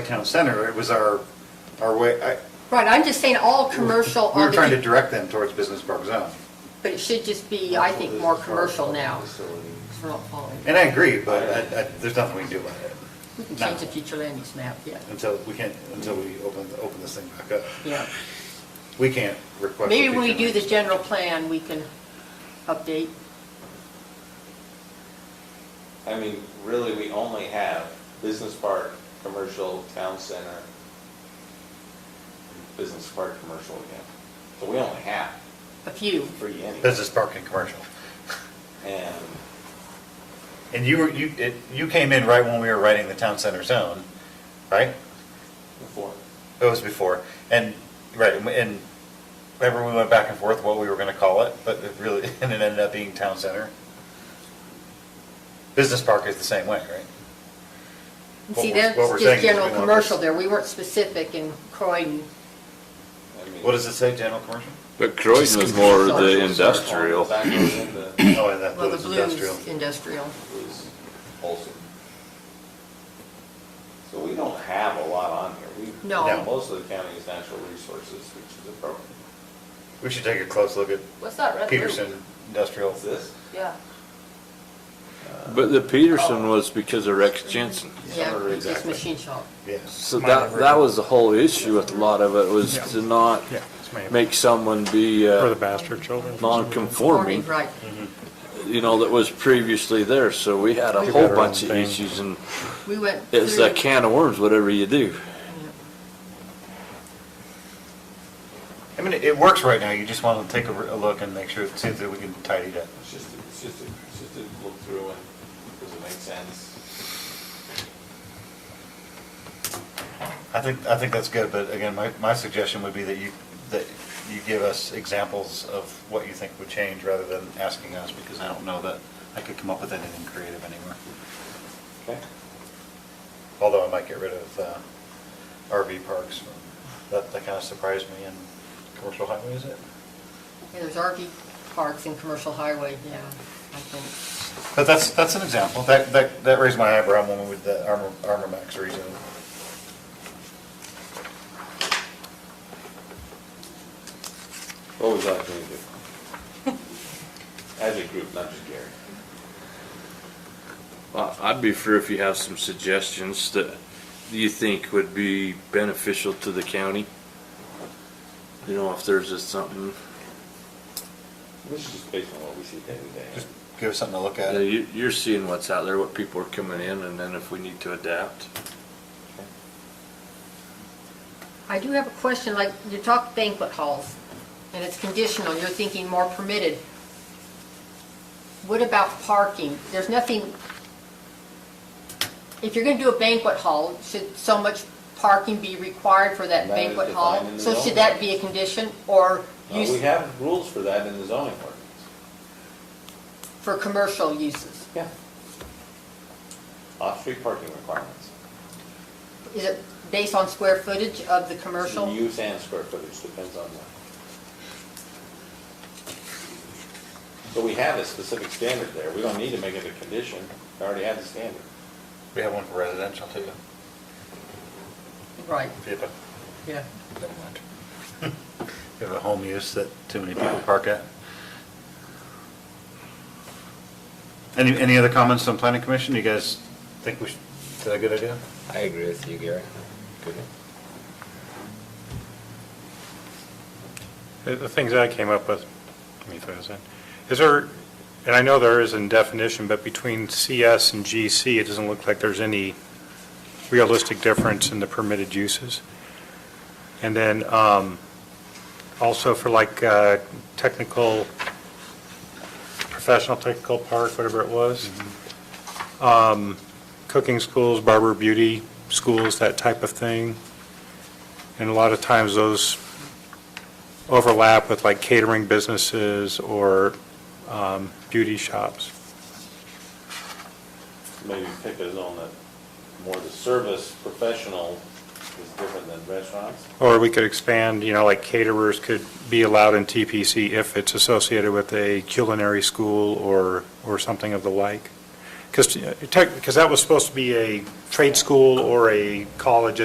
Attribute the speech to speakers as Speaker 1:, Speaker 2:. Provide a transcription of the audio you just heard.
Speaker 1: town center, it was our, our way, I,
Speaker 2: Right, I'm just saying all commercial
Speaker 1: we were
Speaker 2: on
Speaker 1: trying to
Speaker 2: the,
Speaker 1: direct them towards business park zone.
Speaker 2: but it should just be, I think, more commercial now. 'cause we're not following.
Speaker 1: And I agree, but I, I, there's nothing we can do about it
Speaker 2: We can change the future land use map, yeah,
Speaker 1: until, we can't, until we open, open this thing back up.
Speaker 2: yeah.
Speaker 1: We can't request.
Speaker 2: Maybe when we
Speaker 1: future
Speaker 2: do the
Speaker 1: land.
Speaker 2: general plan, we can update.
Speaker 3: I mean, really, we only have business park, commercial, town center, business park, commercial again. So we only have
Speaker 2: A few,
Speaker 3: three anyway.
Speaker 1: Business park and commercial.
Speaker 3: And,
Speaker 1: And you were, you, it, you came in right when we were writing the town center zone, right?
Speaker 3: four.
Speaker 1: It was before, and, right, and- and remember we went back and forth what we were gonna call it, but it really, and it ended up being town center? Business park is the same way, right?
Speaker 2: And
Speaker 1: What
Speaker 2: see,
Speaker 1: we're-
Speaker 2: that's
Speaker 1: what we're saying
Speaker 2: just
Speaker 1: is we
Speaker 2: general
Speaker 1: want this-
Speaker 2: commercial there, we weren't specific in Croydon.
Speaker 3: I mean,
Speaker 1: What does it say, general commercial?
Speaker 4: But Croydon was more the industrial.
Speaker 3: Back in the,
Speaker 1: Oh, and that
Speaker 2: Well, the
Speaker 1: was industrial.
Speaker 2: blues, industrial.
Speaker 3: was Olson. So we don't have a lot on here. We-
Speaker 2: No.
Speaker 1: No.
Speaker 3: Most of the county is natural resources, which is appropriate.
Speaker 1: We should take a close look at
Speaker 2: What's that,
Speaker 1: Peterson industrial.
Speaker 3: What's this?
Speaker 2: Yeah.
Speaker 3: Uh,
Speaker 4: But the Peterson was because of Rex Jensen.
Speaker 2: Yeah, it's just
Speaker 1: Exactly.
Speaker 2: machine shop.
Speaker 1: Yes.
Speaker 4: So that, that was the whole issue with a lot of it was to not
Speaker 5: Yeah, it's made
Speaker 4: make someone be,
Speaker 5: for the
Speaker 4: uh,
Speaker 5: bastard children.
Speaker 4: non-conforming,
Speaker 2: Right,
Speaker 4: you know, that was previously there. So we had a
Speaker 5: Do
Speaker 4: whole
Speaker 5: better on
Speaker 4: bunch of
Speaker 5: things.
Speaker 4: issues and
Speaker 2: we went through.
Speaker 4: it's a can of worms, whatever you do.
Speaker 1: I mean, it works right now, you just want to take a, re- a look and make sure, see if we can tidy it up.
Speaker 3: It's just, it's just, it's just to look through and, does it make sense?
Speaker 1: I think, I think that's good, but again, my, my suggestion would be that you, that you give us examples of what you think would change rather than asking us, because I don't know that I could come up with anything creative anywhere.
Speaker 3: Okay.
Speaker 1: Although I might get rid of uh, RV parks, that, that kind of surprised me, and commercial highways, it.
Speaker 2: Yeah, there's RV parks and commercial highway, yeah, I think.
Speaker 1: But that's, that's an example. That, that, that raised my eyebrow when we with the Armor, Armor Max reason.
Speaker 3: What would you like me to do? As a group, not just Gary.
Speaker 4: Well, I'd be for if you have some suggestions that you think would be beneficial to the county. You know, if there's just something,
Speaker 3: This is just based on what we see day to day.
Speaker 1: Just give us something to look
Speaker 4: Yeah,
Speaker 1: at.
Speaker 4: you, you're seeing what's out there, what people are coming in, and then if we need to adapt.
Speaker 2: I do have a question, like, you talk banquet halls, and it's conditional, you're thinking more permitted. What about parking? There's nothing, if you're gonna do a banquet hall, should so much parking be required for that
Speaker 3: That is
Speaker 2: banquet hall?
Speaker 3: defined in the
Speaker 2: So should
Speaker 3: zoning.
Speaker 2: that be a condition, or
Speaker 3: Uh, we
Speaker 2: use
Speaker 3: have rules for that in the zoning ordinance.
Speaker 2: for commercial uses?
Speaker 3: Yeah. Off-street parking requirements.
Speaker 2: Is it based on square footage of the commercial?
Speaker 3: Use and square footage, depends on that. So we have a specific standard there. We don't need to make it a condition. We already have the standard.
Speaker 1: We have one for residential too.
Speaker 2: Right,
Speaker 1: We have a-
Speaker 2: yeah.
Speaker 1: never mind. We have a home use that too many people park at. Any, any other comments on planning commission? You guys think we should, is that a good idea?
Speaker 6: I agree with you, Gary. Good.
Speaker 5: The the things I came up with, let me throw this in, is there, and I know there is in definition, but between CS and GC, it doesn't look like there's any realistic difference in the permitted uses. And then um, also for like uh, technical, professional technical park, whatever it was, Um, cooking schools, barber beauty schools, that type of thing. And a lot of times those overlap with like catering businesses or um, beauty shops.
Speaker 3: maybe pick a zone that more the service professional is different than restaurants.
Speaker 5: Or we could expand, you know, like caterers could be allowed in TPC if it's associated with a culinary school or, or something of the uh, like. Because, because that was supposed to be a trade school or a college